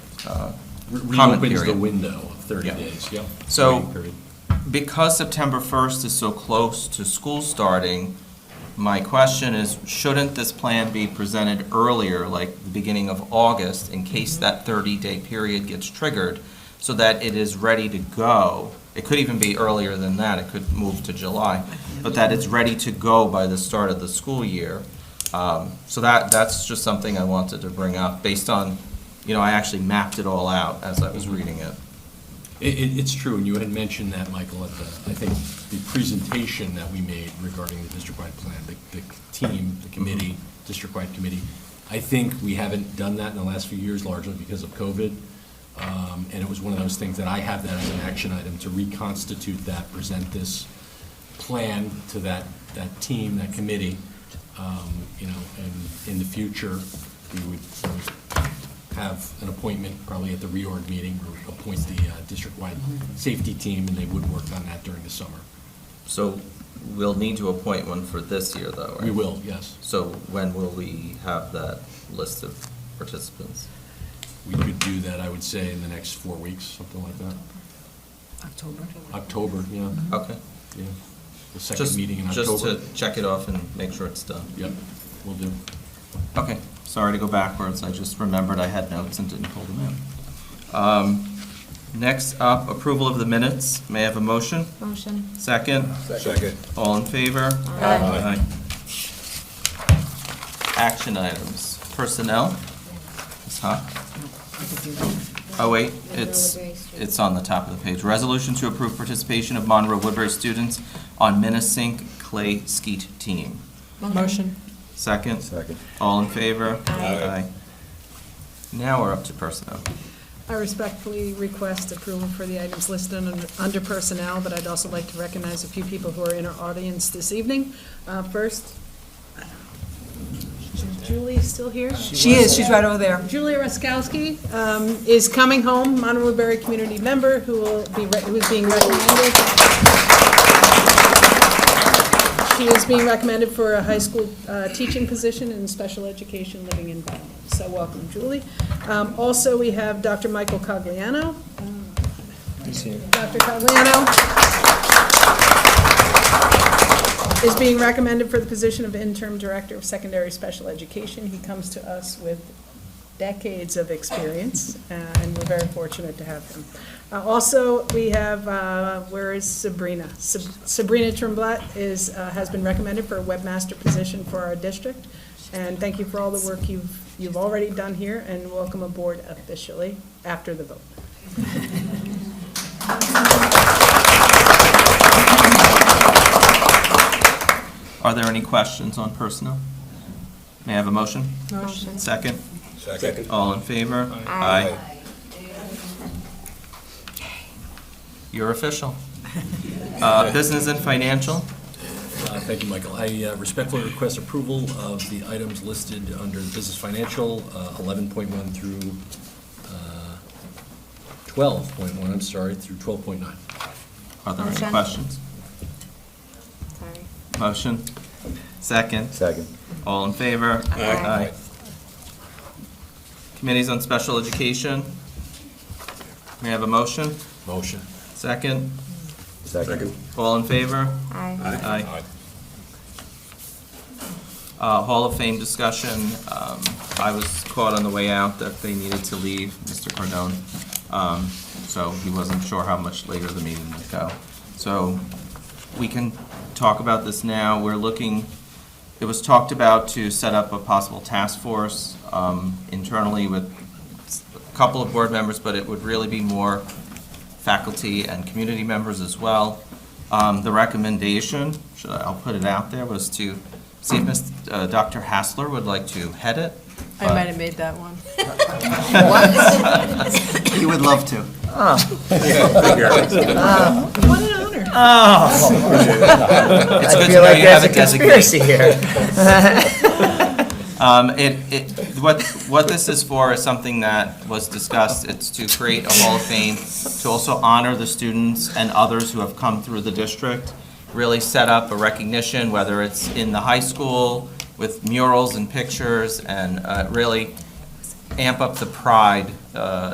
uh, comment Reopens the period. window of 30 Yeah. days, yep. So- Waiting period. Because September 1st is so close to school starting, my question is, shouldn't this plan be presented earlier, like the beginning of August, in case that 30-day period gets triggered, so that it is ready to go? It could even be earlier than that, it could move to July, but that it's ready to go by the start of the school year. Um, So that, that's just something I wanted to bring up, based on, you know, I actually mapped it all out as I was reading it. It, it, it's true, and you had mentioned that, Michael, at the, I think, the presentation that we made regarding the district-wide plan, the, the team, Mm-hmm. the committee, district-wide committee. I think we haven't done that in the last few years largely because of COVID. Um, and it was one of those things that I have that as an action item to reconstitute that, present this plan to that, that team, that committee. Um, you know, and in the future, we would we would have an appointment, probably at the reorg meeting, where we appoint the uh, district-wide safety team, and they would work on that during the summer. So we'll need to appoint one for this year, though, right? We will, yes. So when will we have that list of participants? We could do that, I would say, in the next four weeks, something like that. October. October, yeah, Okay. yeah. The second Mm-hmm. Just meeting in Just October. to check it off and make sure it's done. Yep, will do. Okay, sorry to go backwards, I just remembered I had notes and didn't pull them in. Um, Next up, approval of the minutes. May I have a motion? Motion. Second? Second. All in favor? Aye. Aye. Action items. Personnel? Ms. Hock? Oh, wait, it's, it's on the top of the page. Resolution to approve participation of Monroe Woodbury students on Minnesink Clay Skeet Team. Motion. Second? Second. All in favor? Aye. Now we're up to personnel. I respectfully request approval for the items listed un- under personnel, but I'd also like to recognize a few people who are in our audience this evening. Uh, First, is Julie still here? She is, she's right over there. Julia Raskowski um, is coming home, Monroe Berry community member who will be, re- who is being recommended. She is being recommended for a high school uh, teaching position in special education living environment. So welcome, Julie. Um, Also, we have Dr. Michael Cogliano. Dr. Cogliano is being recommended for the position of interim director of secondary special education. He comes to us with decades of experience, uh, and we're very fortunate to have him. Uh, Also, we have, uh, where is Sabrina? Sab- Sabrina Trumblatt is, uh, has been recommended for a webmaster position for our district, and thank you for all the work you've, you've already done here, and welcome aboard officially after the vote. Are there any questions on personnel? May I have a motion? Motion. Second? Second. All in favor? Aye. You're official. Uh, Business and financial? Uh, Thank you, Michael. I uh, respectfully request approval of the items listed under the business financial, uh, 11.1 through uh, 12.1, I'm sorry, through 12.9. Are there any Motion. questions? Sorry. Motion? Second? Second. All in favor? Aye. Committees on Special Education? May I have a motion? Motion. Second? Second. All in favor? Aye. Aye. Uh, Hall of Fame discussion, um, I was caught on the way out that they needed to leave, Mr. Cardone. Um, so he wasn't sure how much later the meeting would go. So we can talk about this now. We're looking, it was talked about to set up a possible task force, um, internally with a couple of board members, but it would really be more faculty and community members as well. Um, The recommendation, should I- I'll put it out there, was to see if Ms., uh, Dr. Hassler would like to head it. I might have made that one. You would love to. What an honor. It's good I to feel know like you there's have a a designated. conspiracy here. Um, it, it, what, what this is for is something that was discussed, it's to create a Hall of Fame, to also honor the students and others who have come through the district, really set up a recognition, whether it's in the high school with murals and pictures, and, uh, really amp up the pride, uh,